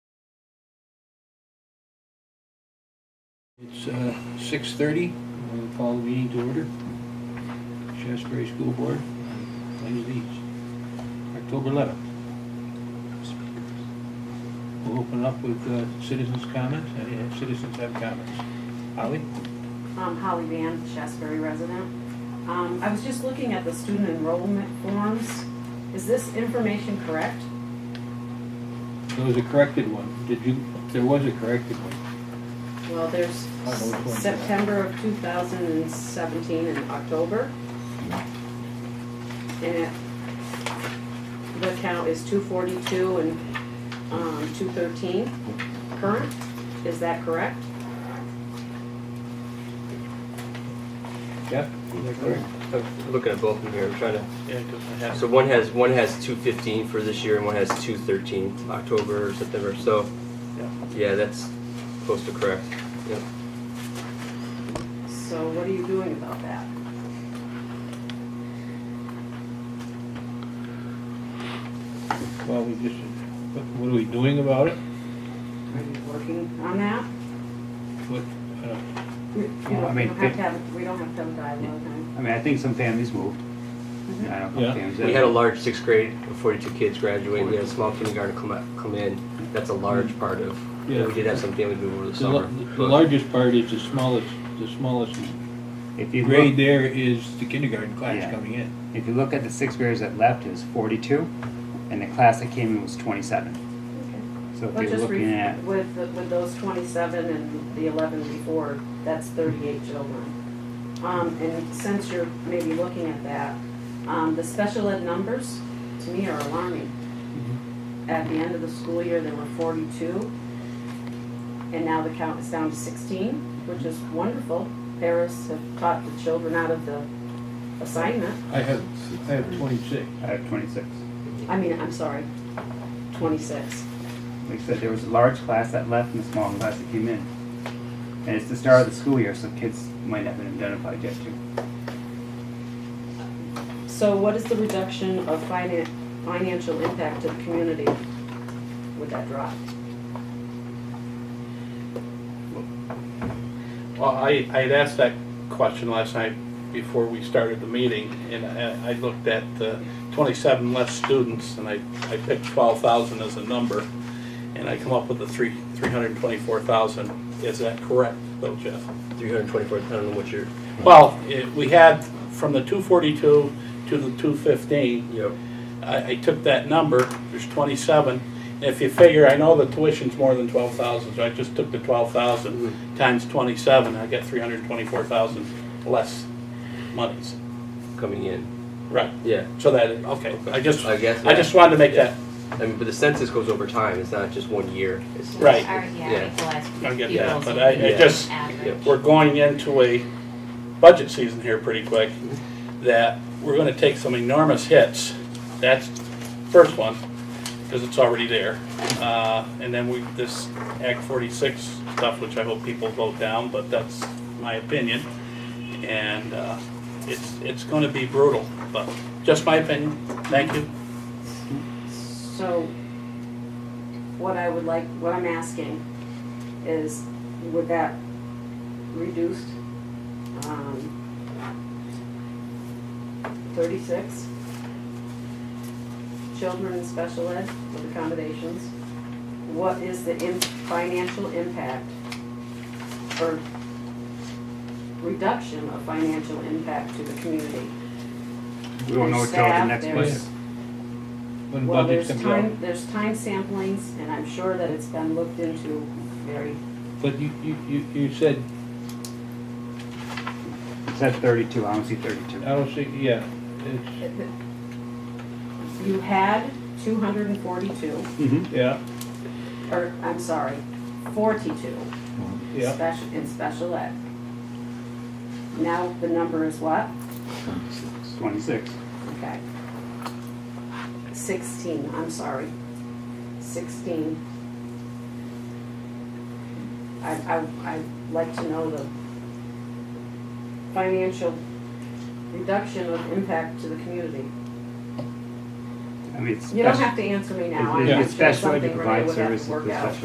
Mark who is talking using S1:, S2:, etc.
S1: It's uh, 6:30. We'll call the meeting to order. Shasberry School Board, Plains Beach, October 11th. We'll open up with uh, citizens' comments. Any uh, citizens have comments? Holly?
S2: Um, Holly Van, Shasberry resident. Um, I was just looking at the student enrollment forms. Is this information correct?
S1: There was a corrected one. Did you, there was a corrected one.
S2: Well, there's
S1: I know which one's that.
S2: September of two thousand and seventeen and October. And it, the count is two forty-two and, um, two thirteen current. Is that correct?
S1: Jeff? Is that correct?
S3: I'm looking at both of them here. I'm trying to.
S4: Yeah, 'cause I have
S3: So one has one has 215 for this year, and one has 213 October or September. So
S4: Yeah.
S3: yeah, that's close to correct. Yep.
S2: So what are you doing about that?
S1: Well, we just, what- what are we doing about it?
S2: Are you working on that?
S1: What, uh,
S2: You you
S5: Well, I
S2: don't, you
S5: mean,
S2: don't have
S5: they-
S2: to have, we don't have to have a dialogue on
S5: I mean, I think some families moved. I
S2: it.
S5: don't know.
S1: Yeah.
S5: Families
S3: We had a large sixth grade with 42 kids graduate. We had a small kindergarten come out, come in. That's a large part of.
S1: Yeah.
S3: We did have some families move over the
S1: the
S3: summer.
S1: la- The
S3: but-
S1: largest part is the smallest, the smallest
S5: if
S1: The
S5: you
S1: grade
S5: look,
S1: there is the kindergarten class
S5: Yeah.
S1: coming in.
S5: if you look at the sixth graders that left, it was 42, and the class that came in was 27.
S2: Okay.
S5: So if
S2: Well,
S5: you're
S2: just
S5: looking at
S2: re- with, the- with those twenty-seven and the eleven before, that's thirty-eight children. Um, and since you're maybe looking at that, um, the special ed numbers, to me, are alarming.
S5: Mm-hmm.
S2: At the end of the school year, there were forty-two, and now the count is down to sixteen, which is wonderful. Parents have taught the children out of the assignment,
S1: I have, I have twenty-six.
S5: I have 26.
S2: I mean, I'm sorry, twenty-six.
S5: Like I said, there was a large class that left and a small class that came in. And it's the start of the school year, so kids might not have been identified yet, too.
S2: So what is the reduction of finan- financial impact to the community with that drop?
S4: Well, I, I had asked that question last night before we started the meeting, and I, I looked at uh, twenty-seven less students, and I, I picked twelve thousand as a number, and I come up with the three, three hundred and twenty-four thousand. Is that correct, though, Jeff?
S3: 324. I don't know what your.
S4: Well, it, we had from the two forty-two to the two fifteen,
S3: Yep.
S4: I, I took that number, there's twenty-seven, and if you figure, I know the tuition's more than twelve thousand, so I just took the twelve thousand times twenty-seven, I get three hundred and twenty-four thousand less monies.
S3: Coming in.
S4: Right,
S3: Yeah.
S4: so that, okay, I just,
S3: I guess.
S4: I just wanted to make
S3: Yeah.
S4: that,
S3: I mean, but the census goes over time. It's not just one year. It's
S4: Right.
S6: Our-
S3: Yeah.
S6: Yeah, equalized
S4: I get that,
S6: pupils
S4: but
S6: and
S4: I, I
S3: Yeah.
S4: just,
S6: average.
S4: we're going into a budget season here pretty quick, that we're gonna take some enormous hits. That's first one, because it's already there. Uh, and then we, this Act forty-six stuff, which I hope people vote down, but that's my opinion. And, uh, it's, it's gonna be brutal, but just my opinion. Thank you.
S2: So what I would like, what I'm asking is, would that reduced, um, thirty-six children in special ed with accommodations? What is the in, financial impact or reduction of financial impact to the community?
S5: We don't know
S2: There's
S5: what till the
S2: staff,
S5: next
S2: there's-
S5: place.
S1: When
S2: well,
S1: budget
S2: there's
S1: comes
S2: time,
S1: out.
S2: there's time samplings, and I'm sure that it's been looked into very,
S1: But you, you, you, you said,
S5: It said 32. I don't see 32.
S1: I don't see, yeah, it's,
S2: you had two hundred and forty-two,
S5: Mm-hmm.
S1: yeah,
S2: or, I'm sorry, forty-two
S1: yeah.
S2: special, in special ed. Now the number is what?
S5: 26.
S1: Mm-hmm.
S2: Okay. Sixteen, I'm sorry. Sixteen. I, I, I'd like to know the financial reduction of impact to the community.
S5: I mean, it's
S2: You don't
S5: special-
S2: have to answer me now.
S5: It-
S2: I'm
S5: It's
S2: sure
S5: special ed to
S2: something Renee
S5: provide
S2: would have
S5: services
S2: to
S5: for
S2: work
S5: special
S2: out.